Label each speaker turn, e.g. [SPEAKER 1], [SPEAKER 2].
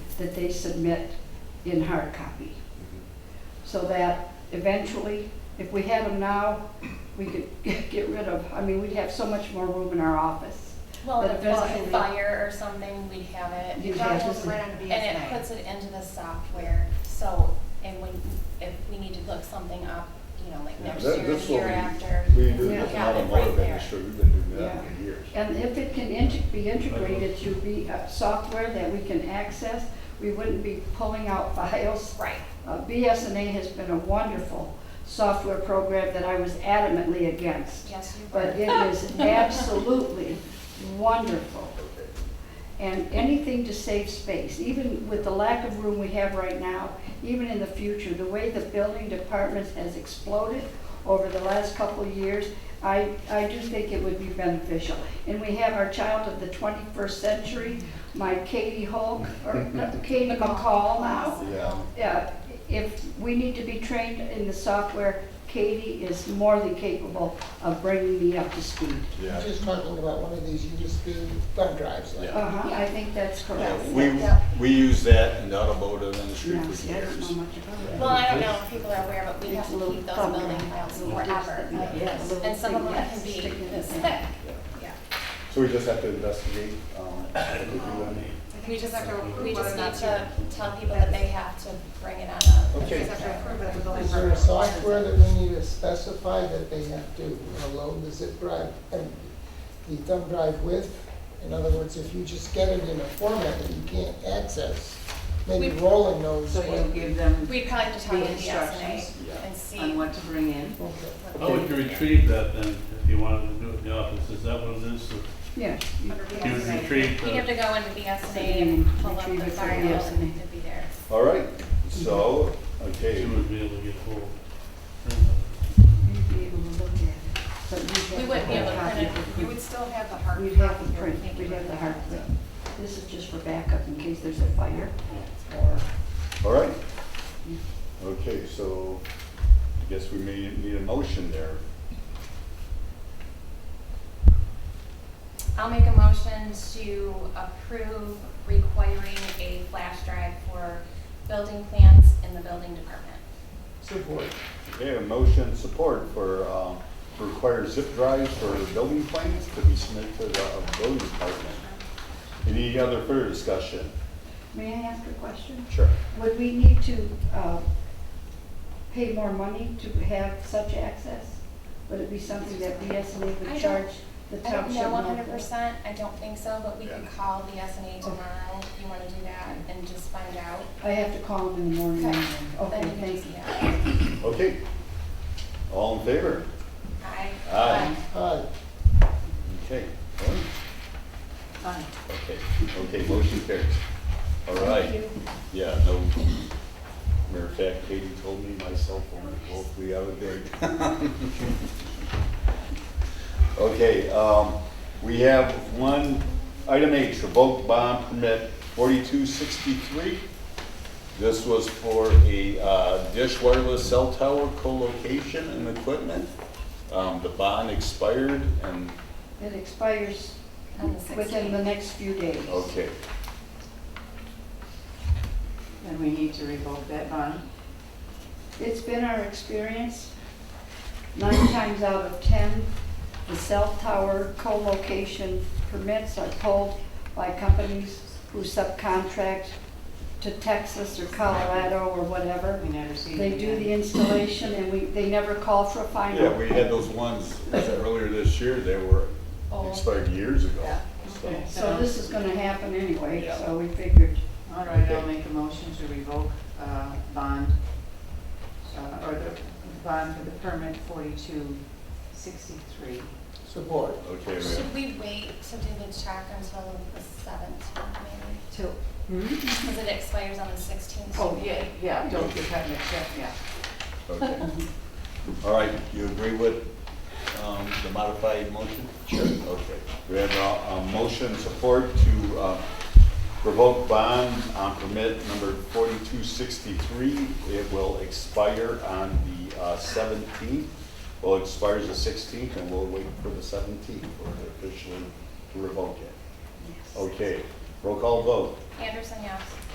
[SPEAKER 1] that they submit in hard copy. So that eventually, if we had them now, we could get rid of, I mean, we'd have so much more room in our office.
[SPEAKER 2] Well,
[SPEAKER 1] But
[SPEAKER 2] if there's a
[SPEAKER 1] eventually-
[SPEAKER 2] fire or something, we have it.
[SPEAKER 1] You'd
[SPEAKER 3] That
[SPEAKER 1] have
[SPEAKER 3] was
[SPEAKER 1] to-
[SPEAKER 3] right on
[SPEAKER 2] And it
[SPEAKER 3] BSNA.
[SPEAKER 2] puts it into the software, so, and when, if we need to look something up, you know, like
[SPEAKER 4] Yeah,
[SPEAKER 2] next
[SPEAKER 4] that-
[SPEAKER 2] year,
[SPEAKER 4] that's
[SPEAKER 2] the year
[SPEAKER 4] what we-
[SPEAKER 2] after.
[SPEAKER 4] We do
[SPEAKER 2] we
[SPEAKER 4] this in the
[SPEAKER 2] have it right
[SPEAKER 4] automotive
[SPEAKER 2] there.
[SPEAKER 4] industry, we've been doing that
[SPEAKER 1] Yeah.
[SPEAKER 4] for years.
[SPEAKER 1] And if it can inte- be integrated to be uh, software that we can access, we wouldn't be pulling out files.
[SPEAKER 2] Right,
[SPEAKER 1] Uh, BSNA has been a wonderful software program that I was adamantly against.
[SPEAKER 2] yes, you
[SPEAKER 1] but
[SPEAKER 2] were.
[SPEAKER 1] it is absolutely wonderful. And anything to save space, even with the lack of room we have right now, even in the future, the way the building department has exploded over the last couple of years, I, I do think it would be beneficial. And we have our child of the 21st century, my Katie Hulk, or no, Katie McCall now.
[SPEAKER 4] Yeah.
[SPEAKER 1] Yeah, if we need to be trained in the software, Katie is more than capable of bringing me up to speed.
[SPEAKER 4] Yeah.
[SPEAKER 5] She's talking about one of these USB thumb drives. like-
[SPEAKER 4] Yeah.
[SPEAKER 1] Uh-huh, I think that's correct.
[SPEAKER 4] We,
[SPEAKER 2] Yeah.
[SPEAKER 4] we use that in the automotive industry
[SPEAKER 1] Now,
[SPEAKER 4] for
[SPEAKER 1] see, I don't know
[SPEAKER 4] years.
[SPEAKER 1] much about it.
[SPEAKER 2] Well, I don't know if people are aware, but we have
[SPEAKER 1] It's a
[SPEAKER 2] to
[SPEAKER 1] little
[SPEAKER 2] keep those
[SPEAKER 1] thumb
[SPEAKER 2] building
[SPEAKER 1] drive.
[SPEAKER 2] files
[SPEAKER 1] Little
[SPEAKER 2] forever.
[SPEAKER 1] disc that- yeah, little
[SPEAKER 2] And some of
[SPEAKER 1] thing
[SPEAKER 2] them can
[SPEAKER 1] that's
[SPEAKER 2] be
[SPEAKER 1] sticking in
[SPEAKER 2] this
[SPEAKER 1] there.
[SPEAKER 2] thick,
[SPEAKER 4] Yeah.
[SPEAKER 2] yeah.
[SPEAKER 4] So we just have to investigate, um, if we want
[SPEAKER 2] We just have to, we just
[SPEAKER 3] Whether
[SPEAKER 2] need
[SPEAKER 3] it's
[SPEAKER 2] to tell people that they have to bring it on a.
[SPEAKER 4] Okay.
[SPEAKER 3] Just have to approve it with the
[SPEAKER 5] Is there a
[SPEAKER 3] library.
[SPEAKER 5] software that we need to specify that they have to you know, load the zip drive and the thumb drive with? In other words, if you just get it in a format that you can't access, maybe
[SPEAKER 2] We-
[SPEAKER 5] Roland knows
[SPEAKER 3] So you
[SPEAKER 5] what.
[SPEAKER 3] give them
[SPEAKER 2] We'd probably have to talk
[SPEAKER 3] The
[SPEAKER 2] to the SNA
[SPEAKER 3] instructions
[SPEAKER 2] and see.
[SPEAKER 3] on what to bring in.
[SPEAKER 5] Okay.
[SPEAKER 2] what
[SPEAKER 6] How would Oh, you
[SPEAKER 2] they-
[SPEAKER 6] retrieve that then, if you wanted to do it in the office, is that what it is?
[SPEAKER 1] Yeah.
[SPEAKER 6] You would retrieve
[SPEAKER 2] We'd have
[SPEAKER 6] the,
[SPEAKER 2] to go into the SNA and pull up
[SPEAKER 1] Retrieve
[SPEAKER 2] the
[SPEAKER 1] it from
[SPEAKER 2] file
[SPEAKER 1] the
[SPEAKER 2] and
[SPEAKER 1] SNA.
[SPEAKER 2] it'd be there.
[SPEAKER 4] All right, so, okay,
[SPEAKER 6] you would be able to get hold.
[SPEAKER 1] You'd be able to look at it, but you'd have
[SPEAKER 2] We wouldn't be able to
[SPEAKER 1] have a
[SPEAKER 2] print
[SPEAKER 1] copy of
[SPEAKER 3] You would still have the hard.
[SPEAKER 1] We'd have
[SPEAKER 3] copy
[SPEAKER 1] the
[SPEAKER 3] here.
[SPEAKER 1] print,
[SPEAKER 3] Thank you
[SPEAKER 1] we'd
[SPEAKER 3] for
[SPEAKER 1] have the
[SPEAKER 3] that.
[SPEAKER 1] hard print. This is just for backup in case there's a fire or,
[SPEAKER 4] all right. Okay, so I guess we may need a motion there.
[SPEAKER 2] I'll make a motion to approve requiring a flash drive for building plans in the building department.
[SPEAKER 5] Support.
[SPEAKER 4] Okay, a motion support for, um, to require zip drives for building plans to be submitted to the uh, building department. Any other further discussion?
[SPEAKER 1] may I ask a question?
[SPEAKER 4] Sure.
[SPEAKER 1] Would we need to uh, pay more money to have such access? Would it be something that BSNA
[SPEAKER 2] I
[SPEAKER 1] would
[SPEAKER 2] don't-
[SPEAKER 1] charge the
[SPEAKER 2] I don't
[SPEAKER 1] township?
[SPEAKER 2] know one
[SPEAKER 1] and all
[SPEAKER 2] hundred
[SPEAKER 1] that?
[SPEAKER 2] percent, I don't think so, but we could
[SPEAKER 4] Yeah.
[SPEAKER 2] call the SNA tomorrow if you wanna do that and just find out.
[SPEAKER 1] I have to call them in the morning.
[SPEAKER 2] Okay.
[SPEAKER 1] Okay,
[SPEAKER 2] Then you
[SPEAKER 1] thank
[SPEAKER 2] can
[SPEAKER 1] you.
[SPEAKER 2] see that.
[SPEAKER 4] Okay. All in favor?
[SPEAKER 2] Aye.
[SPEAKER 4] Aye.
[SPEAKER 5] Hi.
[SPEAKER 4] Okay. All right.
[SPEAKER 3] Fine.
[SPEAKER 4] Okay, okay, motion carries. All
[SPEAKER 1] Thank
[SPEAKER 4] right,
[SPEAKER 1] you.
[SPEAKER 4] yeah, no, matter of fact, Katie told me my cell phone is hopefully out of date. Okay, um, we have one, item H, revoke bond permit forty-two sixty-three. This was for a uh, dish wireless cell tower co-location and equipment. Um, the bond expired and,
[SPEAKER 1] It expires
[SPEAKER 2] On the
[SPEAKER 1] within the
[SPEAKER 2] 16th.
[SPEAKER 1] next few days.
[SPEAKER 4] okay,
[SPEAKER 3] Then we need to revoke that bond.
[SPEAKER 1] It's been our experience, nine times out of 10, the cell tower co-location permits are pulled by companies who subcontract to Texas or Colorado or whatever.
[SPEAKER 3] We never see it
[SPEAKER 1] They do the
[SPEAKER 3] again.
[SPEAKER 1] installation and we, they never call for a final.
[SPEAKER 4] Yeah, we had those ones, was it earlier this year, they were
[SPEAKER 2] Oh.
[SPEAKER 4] expired years ago.
[SPEAKER 3] Yeah.
[SPEAKER 4] so.
[SPEAKER 3] Okay.
[SPEAKER 1] So this is gonna happen anyway,
[SPEAKER 4] Yeah.
[SPEAKER 1] so we figured.
[SPEAKER 3] All right, I'll
[SPEAKER 4] Okay.
[SPEAKER 3] make a motion to revoke uh, bond, uh, or the bond for the permit 4263.
[SPEAKER 5] Support.
[SPEAKER 4] Okay, we
[SPEAKER 2] Should we wait to do the check until the seventh, maybe?
[SPEAKER 3] Till.
[SPEAKER 5] Hmm?
[SPEAKER 2] Because it expires on the sixteenth.
[SPEAKER 3] Oh, yeah, yeah, don't get cut in the check, yeah.
[SPEAKER 4] okay. All right, you agree with um, the modified motion? Sure. Okay, we have a a motion support to uh, revoke bond on permit number 4263. It will expire on the uh, 17th. Well, it expires the 16th, and we'll wait for the 17th for officially to revoke it. Okay, roll call vote.
[SPEAKER 2] Anderson, yes.